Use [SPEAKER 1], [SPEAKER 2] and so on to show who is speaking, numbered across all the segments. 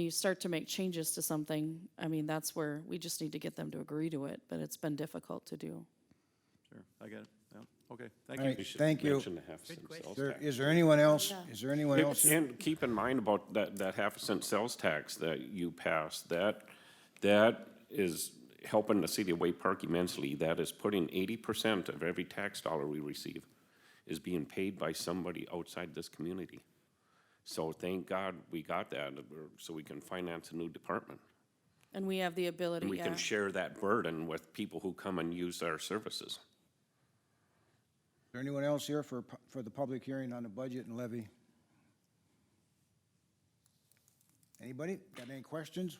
[SPEAKER 1] you start to make changes to something, I mean, that's where we just need to get them to agree to it, but it's been difficult to do.
[SPEAKER 2] Sure, I get it, yeah, okay,
[SPEAKER 3] All
[SPEAKER 2] thank
[SPEAKER 3] right,
[SPEAKER 2] you.
[SPEAKER 4] should
[SPEAKER 3] thank you.
[SPEAKER 4] Mention the half cent sales
[SPEAKER 3] Is there-
[SPEAKER 4] tax.
[SPEAKER 3] Is there anyone else,
[SPEAKER 1] Yeah.
[SPEAKER 3] is there anyone else?
[SPEAKER 4] And keep in mind about that, that half a cent sales tax that you passed, that, that is helping the city of Way Park immensely. That is putting eighty percent of every tax dollar we receive is being paid by somebody outside this community. So thank God we got that, uh, we're- so we can finance a new department.
[SPEAKER 1] And we have the
[SPEAKER 4] And
[SPEAKER 1] ability,
[SPEAKER 4] we
[SPEAKER 1] yeah.
[SPEAKER 4] can share that burden with people who come and use our services.
[SPEAKER 3] Is there anyone else here for, pu- for the public hearing on the budget and levy? Anybody? Got any questions?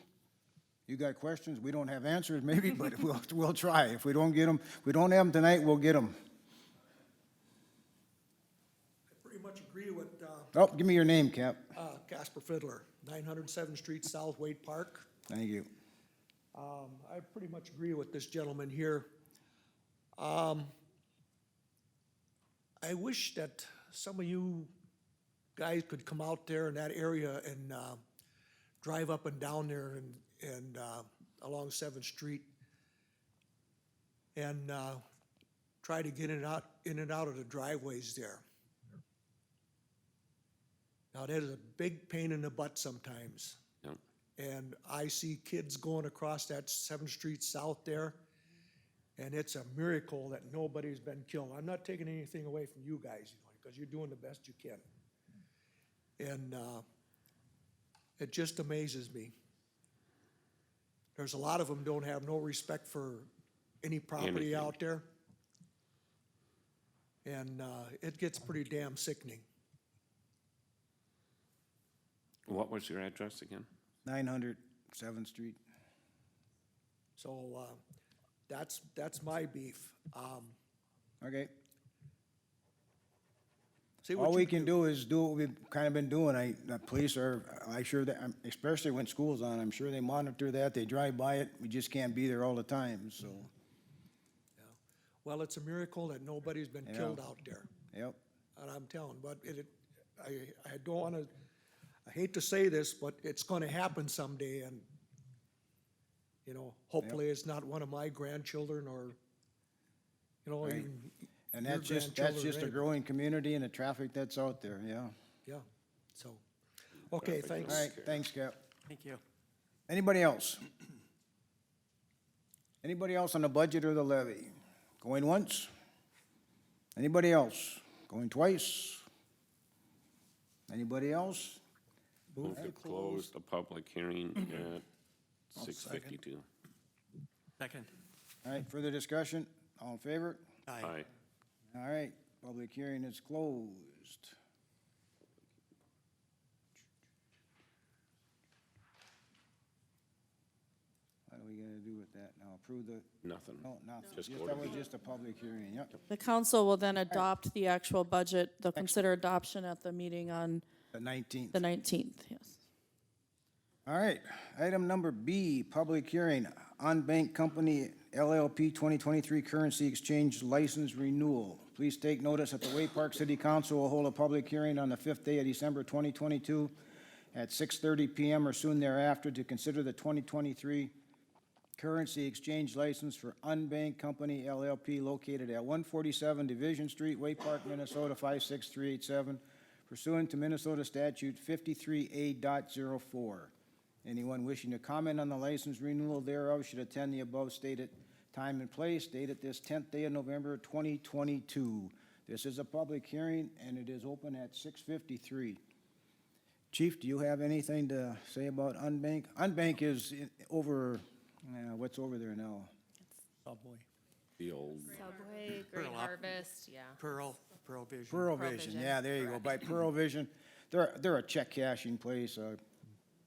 [SPEAKER 3] You got questions? We don't have answers maybe, but we'll, we'll try. If we don't get them, we don't have them tonight, we'll get them.
[SPEAKER 5] Pretty much agree with uh,
[SPEAKER 3] Oh, give me your name, Cap.
[SPEAKER 5] uh, Casper Fiddler, 907th Street, South Wade Park.
[SPEAKER 3] Thank you.
[SPEAKER 5] Um, I pretty much agree with this gentleman here. Um, I wish that some of you guys could come out there in that area and uh, drive up and down there and, and uh, along 7th Street and uh, try to get in and out, in and out of the driveways there. Now, that is a big pain in the butt sometimes.
[SPEAKER 4] you know?
[SPEAKER 5] And I see kids going across that Seventh Street South there. And it's a miracle that nobody's been killed. I'm not taking anything away from you guys, you know, because you're doing the best you can. And, uh, it just amazes me. There's a lot of them don't have no respect for any property
[SPEAKER 4] Anything.
[SPEAKER 5] out there. And, uh, it gets pretty damn sickening.
[SPEAKER 4] What was your address again?
[SPEAKER 3] 900 7th Street.
[SPEAKER 5] So, uh, that's, that's my beef. Um,
[SPEAKER 3] Okay.
[SPEAKER 5] see what
[SPEAKER 3] All
[SPEAKER 5] you
[SPEAKER 3] we can do is do what we've kind of been doing. I, the police are, I sure that, I'm- especially when school's on, I'm sure they monitor that. They drive by it. We just can't be there all the time, so,
[SPEAKER 5] Well, it's a miracle that nobody's been killed out there,
[SPEAKER 3] yep.
[SPEAKER 5] and I'm telling, but it, it- I, I don't wanna, I hate to say this, but it's gonna happen someday, and, you know, hopefully it's not one of my grandchildren or, you know, even,
[SPEAKER 3] And
[SPEAKER 5] Your
[SPEAKER 3] that's just, that's
[SPEAKER 5] grandchildren,
[SPEAKER 3] just a
[SPEAKER 5] right?
[SPEAKER 3] growing community and the traffic that's out there, yeah.
[SPEAKER 5] yeah, so, okay, thanks.
[SPEAKER 3] All right, thanks, Cap.
[SPEAKER 2] Thank you.
[SPEAKER 3] Anybody else? Anybody else on the budget or the levy? Going once? Anybody else? Going twice? Anybody else?
[SPEAKER 4] Move to close Mm-hmm. the public hearing at six fifty-two.
[SPEAKER 2] Second.
[SPEAKER 3] All right, further discussion? All in favor?
[SPEAKER 4] Aye.
[SPEAKER 3] All right, public hearing is closed. What are we gonna do with that now? Approve the,
[SPEAKER 4] Nothing.
[SPEAKER 3] no, nothing.
[SPEAKER 4] Just
[SPEAKER 3] Just,
[SPEAKER 4] go
[SPEAKER 3] that
[SPEAKER 4] to
[SPEAKER 3] was
[SPEAKER 4] the-
[SPEAKER 3] just a public hearing, yep.
[SPEAKER 1] The council will then adopt the actual budget, they'll consider adoption at the meeting on
[SPEAKER 3] The nineteenth.
[SPEAKER 1] the 19th, yes.
[SPEAKER 3] All right, item number B, public hearing, Bank Company LLP 2023 Currency Exchange License Renewal. Please take notice that the Way Park City Council will hold a public hearing on the 5th day of December 2022 at 6:30 PM or soon thereafter to consider the 2023 currency exchange license for Unbanked Company LLP located at 147 Division Street, Way Park, Minnesota 56387, pursuant to Minnesota Statute 53A.04. Anyone wishing to comment on the license renewal thereof should attend the above stated time and place, dated this 10th day of November 2022. This is a public hearing, and it is open at 6:53. Chief, do you have anything to say about Unbank? Unbank is i- over, uh, what's over there now?
[SPEAKER 5] Oh, boy.
[SPEAKER 4] The old,
[SPEAKER 6] Subway, Great Harvest, yeah.
[SPEAKER 5] Pearl, Pearl Vision.
[SPEAKER 3] Pearl
[SPEAKER 6] Pearl
[SPEAKER 3] Vision,
[SPEAKER 6] Vision,
[SPEAKER 3] yeah, there you go, by Pearl Vision. They're, they're a check cashing place, a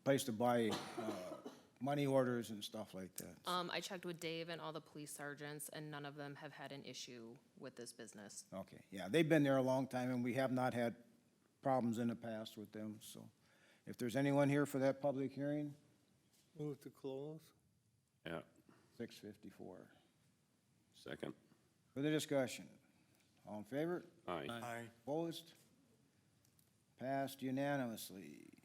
[SPEAKER 3] place to buy uh, money orders and stuff like that.
[SPEAKER 6] Um, I checked with Dave and all the police sergeants, and none of them have had an issue with this business.
[SPEAKER 3] Okay, yeah, they've been there a long time, and we have not had problems in the past with them, so. If there's anyone here for that public hearing,
[SPEAKER 7] Move to close?
[SPEAKER 4] yeah,
[SPEAKER 3] 6:54.
[SPEAKER 4] second.
[SPEAKER 3] Further discussion? All in favor?
[SPEAKER 4] Aye.
[SPEAKER 7] Aye.
[SPEAKER 3] Opposed? Passed unanimously.